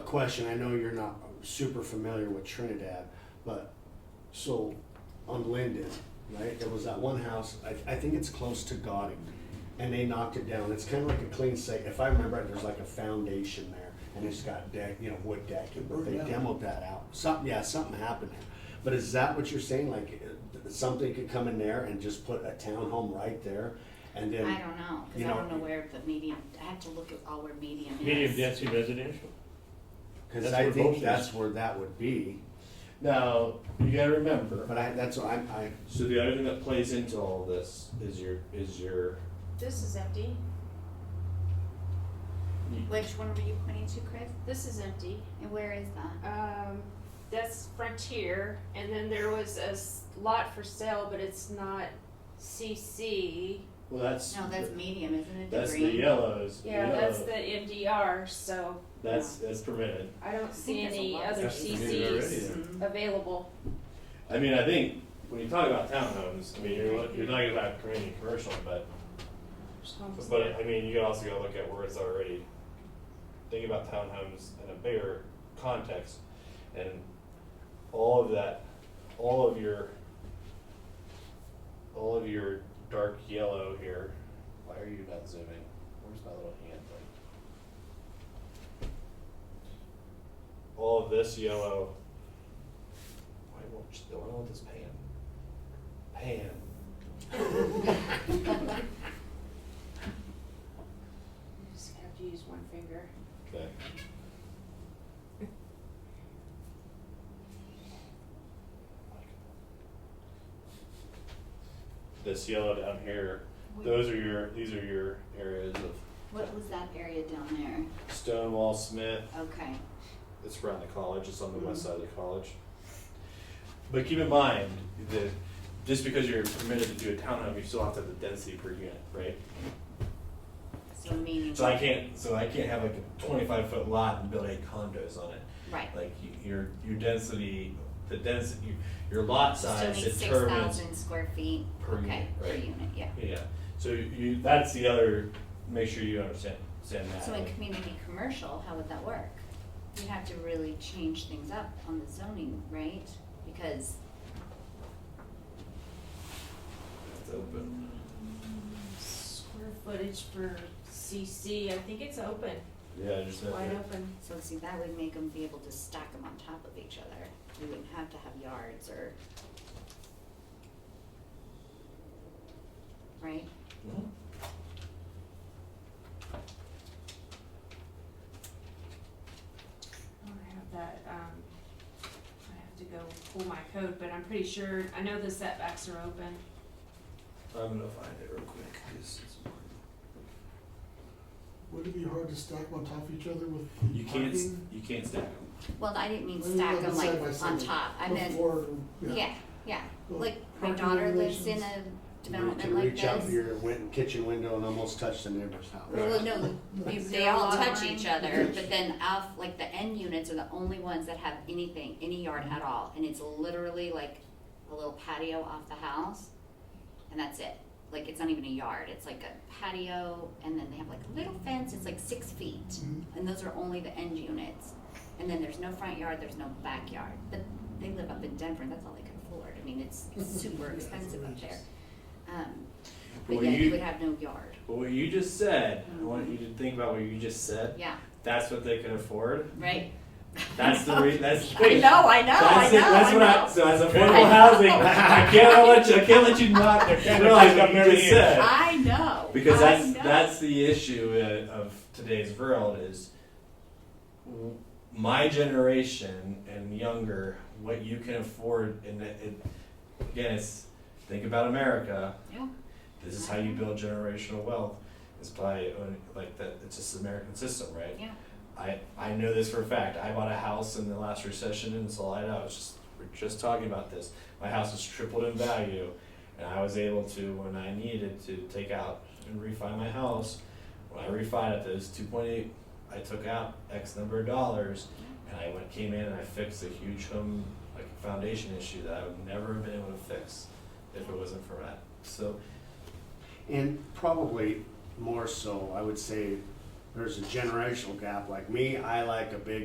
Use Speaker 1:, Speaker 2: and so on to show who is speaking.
Speaker 1: question, I know you're not super familiar with Trinidad, but, so, on Linden, right, there was that one house, I, I think it's close to Gauding, and they knocked it down, it's kinda like a clean site, if I remember right, there's like a foundation there, and it's got deck, you know, wood decking,
Speaker 2: Oh,
Speaker 1: but they
Speaker 3: Burned down.
Speaker 1: demoed that out, something, yeah, something happened there. But is that what you're saying, like, uh, something could come in there and just put a townhome right there, and then?
Speaker 4: I don't know,
Speaker 1: You
Speaker 4: because I don't
Speaker 1: know-
Speaker 4: know where the medium, I have to look at all where medium is.
Speaker 2: medium density residential.
Speaker 1: Because
Speaker 2: That's
Speaker 1: I
Speaker 2: where both
Speaker 1: think
Speaker 2: is.
Speaker 1: that's where that would be,
Speaker 3: Now, you gotta remember,
Speaker 1: but I, that's what I'm, I,
Speaker 5: So the other thing that plays into all of this is your is your
Speaker 6: This is empty.
Speaker 4: Which one were you pointing to, Chris?
Speaker 6: This is empty.
Speaker 4: And where is that?
Speaker 6: Um, that's Frontier, and then there was a s- lot for sale, but it's not CC.
Speaker 3: well, that's,
Speaker 4: No, that's medium, isn't it?
Speaker 3: that's the
Speaker 4: green?
Speaker 3: yellows,
Speaker 6: Yeah, that's
Speaker 3: yellow.
Speaker 6: the MDR, so
Speaker 3: that's, that's permitted.
Speaker 6: I don't see
Speaker 4: think there's a
Speaker 6: any
Speaker 4: lot.
Speaker 6: other
Speaker 5: That's permitted already
Speaker 6: CCs
Speaker 5: then.
Speaker 4: Mhm.
Speaker 6: available.
Speaker 3: I mean, I think, when you talk about townhomes, I mean, you're, look- you're talking about community commercial, but, but, I mean, you can also go look at where it's already. Think about townhomes in a bigger context, and all of that, all of your, all of your dark yellow here, why are you not zooming? Where's my little hand thing? All of this yellow, why won't, you- why won't this pan? Pan.
Speaker 6: You just have to use one finger.
Speaker 3: Okay. This yellow down here, those are your, these are your areas of
Speaker 4: What was that area down
Speaker 3: Stonewall Smith,
Speaker 4: there? Okay.
Speaker 3: it's around the college, it's on the west side of the college. But keep in mind that just because you're permitted to do a townhome, you still have to have the density per unit, right?
Speaker 4: So medium.
Speaker 3: So I can't, so I can't have like a twenty-five foot lot and build eight condos on it.
Speaker 4: Right.
Speaker 3: Like you- your, your density, the density, your lot
Speaker 4: Still
Speaker 3: size
Speaker 4: need six
Speaker 3: determines.
Speaker 4: thousand square feet.
Speaker 3: per
Speaker 4: Okay,
Speaker 3: unit,
Speaker 4: per
Speaker 3: right?
Speaker 4: unit, yeah.
Speaker 3: Yeah, so you, that's the other, make sure you understand, understand that.
Speaker 4: So in community commercial, how would that work? You'd have to really change things up on the zoning, right? Because
Speaker 3: It's open.
Speaker 6: Square footage for CC, I think it's open,
Speaker 3: Yeah, just. that-
Speaker 6: wide open.
Speaker 4: So see, that would make them be able to stack them on top of each other. We wouldn't have to have yards or. Right?
Speaker 3: Mhm.
Speaker 6: I don't have that, um, I have to go pull my code, but I'm pretty sure, I know the setbacks are open.
Speaker 3: I'm gonna find it real quick, 'cause it's important.
Speaker 7: Would it be hard to stack on top of each other with the
Speaker 5: you can't s-
Speaker 7: parking?
Speaker 5: you can't stack them.
Speaker 4: Well, I didn't mean
Speaker 7: Well,
Speaker 4: stack
Speaker 7: you
Speaker 4: them
Speaker 7: have
Speaker 4: like
Speaker 7: it side by
Speaker 4: on
Speaker 7: side.
Speaker 4: top. I
Speaker 7: Or
Speaker 4: meant,
Speaker 7: floor,
Speaker 4: yeah, yeah.
Speaker 7: Well,
Speaker 4: Like my
Speaker 7: parking
Speaker 4: daughter lives in
Speaker 7: regulations.
Speaker 4: a
Speaker 1: You
Speaker 4: development
Speaker 1: can
Speaker 4: like
Speaker 1: reach out
Speaker 4: this.
Speaker 1: your win- kitchen window and almost touch the neighbor's house.
Speaker 4: Well, no, you- they
Speaker 6: Zero
Speaker 4: all
Speaker 6: lot
Speaker 4: touch
Speaker 6: line.
Speaker 4: each other, but then off, like the end units are the only ones that have anything, any yard at all. And it's literally like a little patio off the house and that's it. Like it's not even a yard, it's like a patio and then they have like a little fence, it's like six feet.
Speaker 7: Mhm.
Speaker 4: And those are only the end units. And then there's no front yard, there's no backyard. But they live up in Denver and that's all they can afford. I mean, it's super expensive up there. Um, but
Speaker 5: Well,
Speaker 4: yeah, you
Speaker 5: you-
Speaker 4: would have no yard,
Speaker 5: But what you just said, I want you to think about what you just said.
Speaker 4: yeah,
Speaker 5: That's what they can afford.
Speaker 4: right?
Speaker 5: That's the re- that's the
Speaker 4: I
Speaker 5: thing.
Speaker 4: know, I know, Oh, I
Speaker 5: That's
Speaker 4: know,
Speaker 5: it. That's
Speaker 4: I
Speaker 5: what
Speaker 4: know.
Speaker 5: I. So as affordable housing, I can't let you. I can't let you not realize what you just said.
Speaker 4: I know.
Speaker 5: Because
Speaker 4: I
Speaker 5: that's
Speaker 4: know.
Speaker 5: that's the issue uh, of today's world is w- my generation and younger what you can afford and it, it, again it's think about America
Speaker 4: Yeah.
Speaker 5: this is how you build generational wealth is by owning, like that it's just the American system right
Speaker 4: Yeah.
Speaker 5: I I know this for a fact I bought a house in the last recession in Salida I was just we're just talking about this my house has tripled in value and I was able to when I needed to take out and refi my house. When I refied it, those two point eight, I took out X number of dollars, and I went came in and I fixed a huge home like foundation issue that I would never have been able to fix if it wasn't for that. So
Speaker 1: And probably more so, I would say, there's a generational gap. Like me, I like a big